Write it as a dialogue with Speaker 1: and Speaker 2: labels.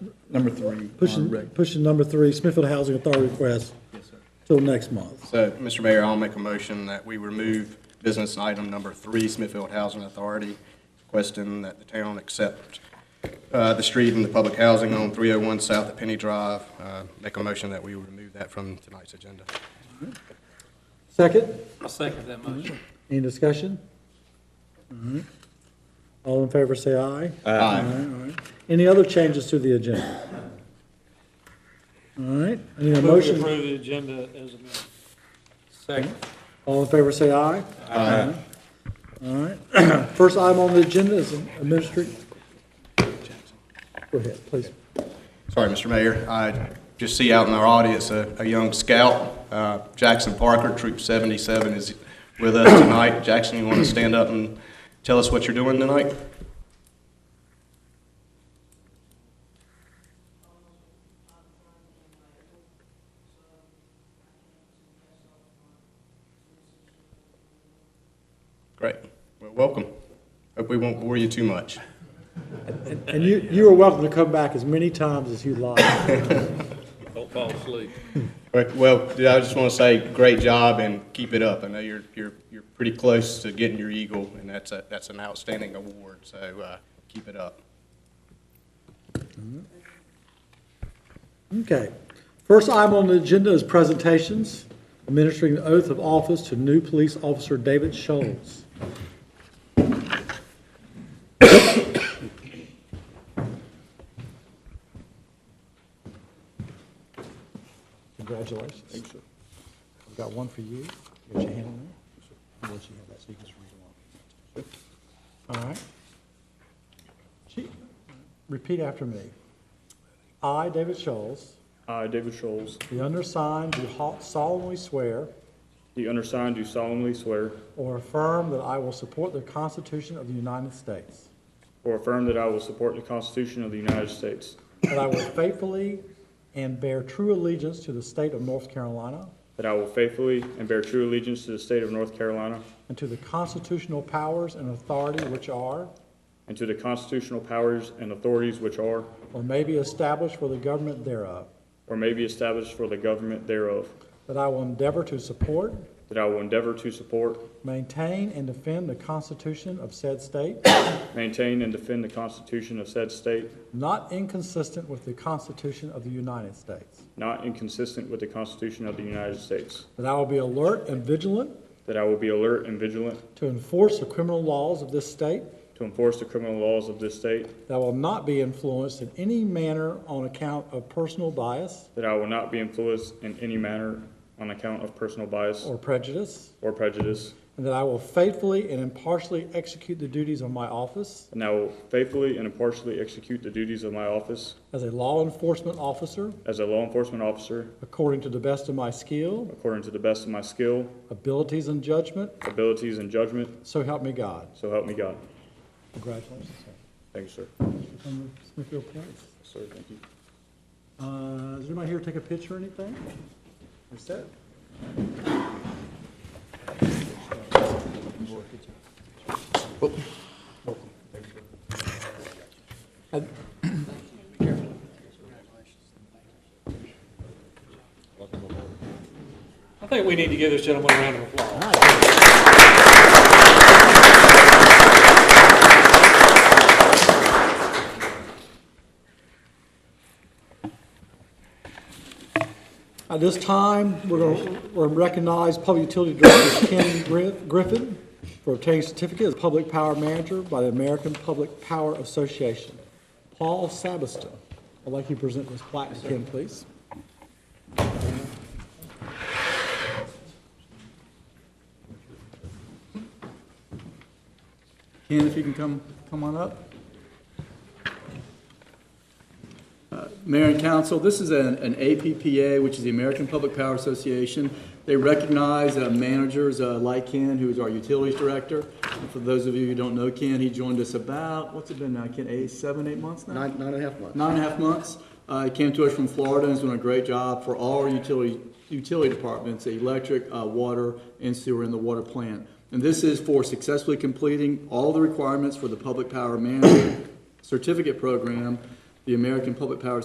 Speaker 1: number three on
Speaker 2: Pushing,
Speaker 1: rec.
Speaker 2: pushing number three, Smithfield Housing Authority request till next month.
Speaker 3: So, Mr. Mayor, I'll make a motion that we remove business item number three, Smithfield Housing Authority, requesting that the town accept uh, the street and the public housing on 301 South at Penny Drive. Uh, Make a motion that we remove that from tonight's agenda.
Speaker 2: Second,
Speaker 4: I'll second that motion.
Speaker 2: any discussion? All in favor, say Mm-hmm. aye.
Speaker 3: Aye.
Speaker 2: Any other changes to the agenda? All right, I need a
Speaker 4: Move to
Speaker 2: motion.
Speaker 4: approve the agenda as amended. Second.
Speaker 2: All in favor, say aye. Aye. All right, first item on the agenda is administrative. Go ahead, please.
Speaker 3: Sorry, Mr. Mayor. I just see out in our audience a, a young scout, uh, Jackson Parker, Troop 77 is with us tonight. Jackson, you want to stand up and tell us what you're doing tonight? Great. Well, welcome. Hope we won't bore you too much.
Speaker 2: And you, you are welcome to come back as many times as you like.
Speaker 4: Don't fall asleep.
Speaker 3: Right, Well, dude, I just want to say, great job and keep it up. I know you're, you're, you're pretty close to getting your Eagle, and that's a, that's an outstanding award, so, uh, keep it up.
Speaker 2: Okay. First item on the agenda is presentations, administering the oath of office to new police officer David Scholes. Congratulations. Thanks, sir. I've got one for you. Get your hand on there. I'll let you have that so you can just read along. All right. Chief, Repeat after me. I, David Scholes,
Speaker 5: I, David Scholes,
Speaker 2: the undersigned, do ho- solemnly swear
Speaker 5: the undersigned do solemnly swear
Speaker 2: or affirm that I will support the Constitution of the United States,
Speaker 5: or affirm that I will support the Constitution of the United States,
Speaker 2: that I will faithfully and bear true allegiance to the state of North Carolina
Speaker 5: that I will faithfully and bear true allegiance to the state of North Carolina
Speaker 2: and to the constitutional powers and authority which are
Speaker 5: and to the constitutional powers and authorities which are
Speaker 2: or may be established for the government thereof,
Speaker 5: or may be established for the government thereof,
Speaker 2: that I will endeavor to support,
Speaker 5: that I will endeavor to support,
Speaker 2: maintain, and defend the Constitution of said state,
Speaker 5: maintain, and defend the Constitution of said state,
Speaker 2: not inconsistent with the Constitution of the United States,
Speaker 5: not inconsistent with the Constitution of the United States,
Speaker 2: that I will be alert and vigilant
Speaker 5: that I will be alert and vigilant
Speaker 2: To enforce the criminal laws of this state.
Speaker 5: to enforce the criminal laws of this state,
Speaker 2: That I will not be influenced in any manner on account of personal bias
Speaker 5: that I will not be influenced in any manner on account of personal bias
Speaker 2: or prejudice.
Speaker 5: or prejudice,
Speaker 2: And that I will faithfully and impartially execute the duties of my office
Speaker 5: and I will faithfully and impartially execute the duties of my office
Speaker 2: as a law enforcement officer
Speaker 5: as a law enforcement officer
Speaker 2: according to the best of my skill,
Speaker 5: according to the best of my skill,
Speaker 2: abilities, and judgment.
Speaker 5: abilities, and judgment,
Speaker 2: So help me God.
Speaker 5: so help me God.
Speaker 2: Congratulations.
Speaker 5: Thank you, sir.
Speaker 2: sir. From Smithfield Place.
Speaker 5: Sir, thank you.
Speaker 2: Uh, Is anybody here to take a picture or anything? You're set.
Speaker 4: I think we need to give this gentleman a round of applause.
Speaker 2: At this time, we're going to recognize Public Utility Director Ken Griff- Griffin for obtaining certificate as Public Power Manager by the American Public Power Association. Paul Sabiston, I'd like you to present this plaque to Ken, please.
Speaker 6: Ken, if you can come, come on up. Uh, Mayor and council, this is an an APPA, which is the American Public Power Association. They recognize uh, managers uh, like Ken, who is our utilities director. And For those of you who don't know Ken, he joined us about, what's it been now, Ken, eight, seven, eight months now?
Speaker 3: Nine, nine and a half months.
Speaker 6: Nine and a half months. Uh, he came to us from Florida and has done a great job for all our utility, utility departments, electric, uh, water, and sewer in the water plant. And this is for successfully completing all the requirements for the Public Power Manager Certificate Program, the American Public Power